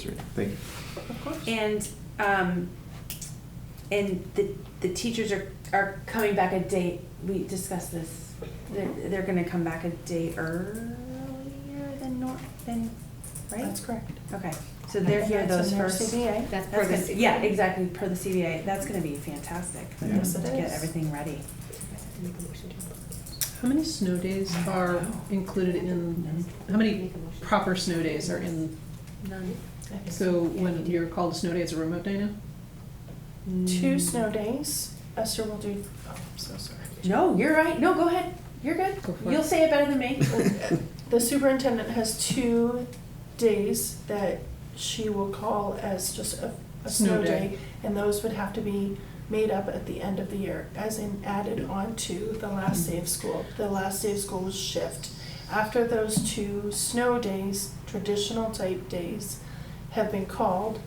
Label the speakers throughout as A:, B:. A: Street. Thank you.
B: Of course.
C: And um, and the the teachers are are coming back a day. We discussed this. They're they're going to come back a day earlier than nor than right.
B: That's correct.
C: Okay, so they're here those first.
D: That's
C: That's
D: per the
C: gonna-
D: C-
C: Yeah, exactly, per the CBA. That's going to be fantastic. for them
B: Yes, it
C: to Get
B: is.
C: everything ready.
E: How many snow days are included in, how many proper snow days are in,
D: None.
E: so when you're called a snow day, it's a remote day now?
B: Two snow days. Esther will do, oh, I'm so sorry.
C: No, you're right. No, go ahead. You're good.
E: Go for it.
C: You'll say it better than me.
B: The superintendent has two days that she will call as just a, a
E: Snow
B: snow
E: day.
B: day. And those would have to be made up at the end of the year, as in added on to the last day of school. The last day of school is shift. After those two snow days, traditional type days, have been called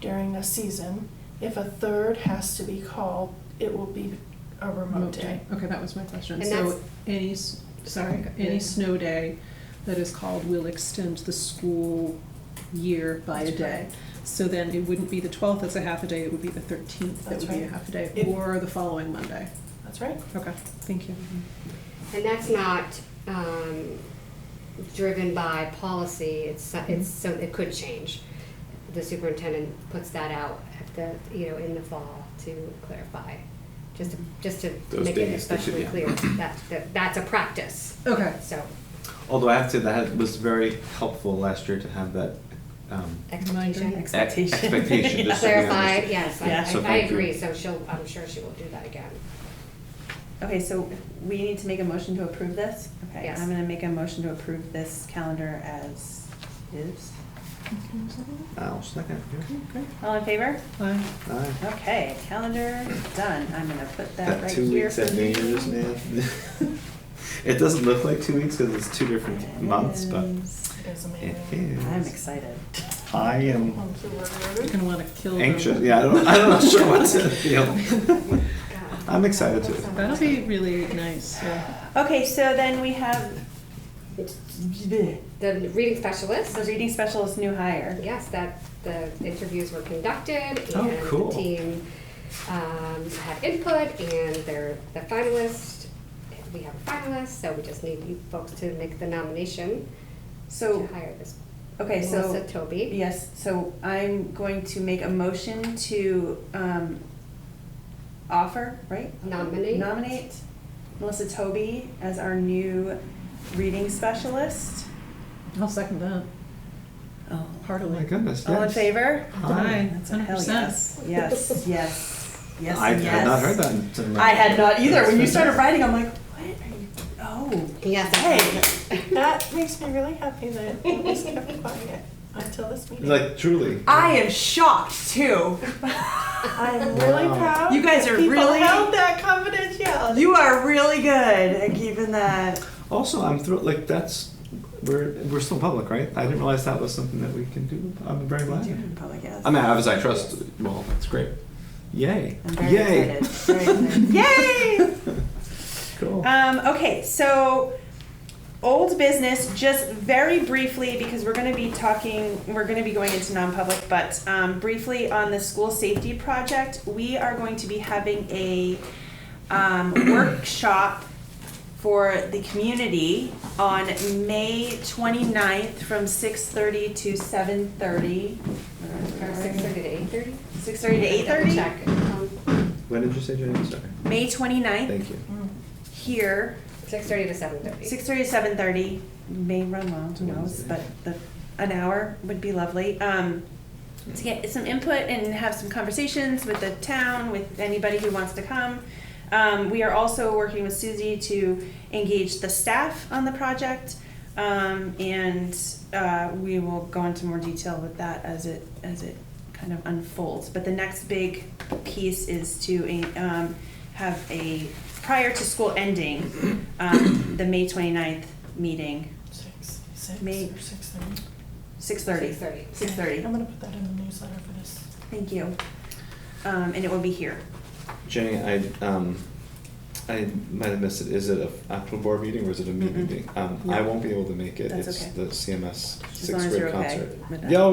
B: during a season, if a third has to be called, it will be a remote day.
E: Okay, that was my question.
D: And
E: So
D: that's-
E: any, s- sorry, any snow day that is called will extend the school year by a
B: That's
E: day. So then it wouldn't be the twelfth as a half a day, it would be the thirteenth that
B: That's
E: would be a
B: right.
E: half a day,
B: It-
E: or the following Monday.
B: That's right.
E: Okay, thank you.
B: Mm-hmm.
D: And that's not um, driven by policy, it's, so- it's, so it could change. The superintendent puts that out at the, you know, in the fall to clarify, just to, just to
A: Those
D: make it
A: days, they should
D: especially
A: be out.
D: clear, that, that, that's a practice,
E: Okay,
D: so.
A: Although I have to say that was very helpful last year to have that um,
D: Expectation.
A: ex- expectation. just so we
D: Clarify,
A: understand.
D: yes,
C: Yeah.
D: I-
A: So
D: I, I
A: thank you.
D: agree, so she'll, I'm sure she will do that again.
C: Okay, so we need to make a motion to approve this? Okay,
D: Yes.
C: I'm gonna make a motion to approve this calendar as is.
A: I'll second.
C: All in favor?
E: Aye.
A: Aye.
C: Okay, calendar done. I'm gonna put that
A: That
C: right
A: two
C: here
A: weeks
C: for
A: at New
C: you.
A: Year's, man. It doesn't look like two weeks because it's two different months, but
C: Yes.
B: It is
A: it
B: amazing.
A: is.
C: I'm excited.
A: I am
B: Thank you, Lord.
E: You're gonna wanna kill them.
A: anxious. Yeah, I don't, I'm not sure what to
D: Um,
A: feel.
D: God.
A: I'm excited too.
E: That'll be really nice, yeah.
C: Okay, so then we have
D: The reading specialist,
C: the reading specialist new hire.
D: Yes, that the interviews were conducted
A: Oh,
D: and
A: cool.
D: the team um, had input and they're the finalist. We have a finalist, so we just need you folks to make the nomination
C: So,
D: to hire this.
C: okay, so.
D: Melissa Toby.
C: Yes, so I'm going to make a motion to um, offer, right?
D: Nominate.
C: Nominate Melissa Toby as our new reading specialist.
E: I'll second that,
C: Oh,
A: Oh
E: heartily.
A: my goodness,
C: All in
A: yes.
C: favor?
A: Aye.
C: That's a hell
E: 100%.
C: yes. Yes, yes, yes,
A: I
C: yes.
A: had not heard that. until-
C: I had not either. When you
A: That's
C: started
A: fantastic.
C: writing, I'm like, what are you, oh.
D: Yes.
C: Hey.
B: That makes me really happy that it was kept quiet until this meeting.
A: Like truly.
C: I am shocked too.
B: I'm really
A: Wow.
B: proud.
C: You guys
B: that
C: are
B: people
C: really-
B: held that confidentiality.
C: You are really good at keeping that.
A: Also, I'm thrilled. Like that's we're we're still public, right? I didn't realize that was something that we can do. I'm very glad.
C: in public, yes.
A: I mean, obviously, I trust. Well, that's great. Yay!
C: I'm very
A: Yay!
C: excited. Very excited. Yay!
A: Cool.
C: Um, okay, so old business, just very briefly, because we're gonna be talking, we're gonna be going into non-public, but, um, briefly on the school safety project, we are going to be having a, um, workshop for the community on May 29th from six-thirty to seven-thirty.
D: From six thirty to eight thirty.
C: Six-thirty to eight-thirty?
D: Check. Um,
A: when did you say your name? Sorry.
C: May 29th,
A: Thank you.
B: Mm,
C: here.
D: Six thirty to seven thirty.
C: Six thirty to seven thirty, may run long, who knows, but the, an hour would be lovely. Um, to get some input and have some conversations with the town, with anybody who wants to come. Um, we are also working with Susie to engage the staff on the project. Um, and, uh, we will go into more detail with that as it, as it kind of unfolds. But the next big piece is to, um, have a, prior to school ending, um, the May 29th meeting,
B: Six, six,
C: Me.
B: or six thirty.
C: six thirty.
D: Six thirty.
C: Six thirty,
B: I'm gonna put that in the newsletter for this.
C: thank you. Um, and it will be here.
A: Jenny, I um, I might have missed it. Is it a actual board meeting or is it a me
C: Mm-mm.
A: meeting? Um, I
C: No.
A: won't be able to make it.
C: That's
A: it's
C: okay.
A: the CMS
C: As long
A: sixth
C: as
A: grade
C: you're okay
A: concert.
C: with that.
A: Yeah,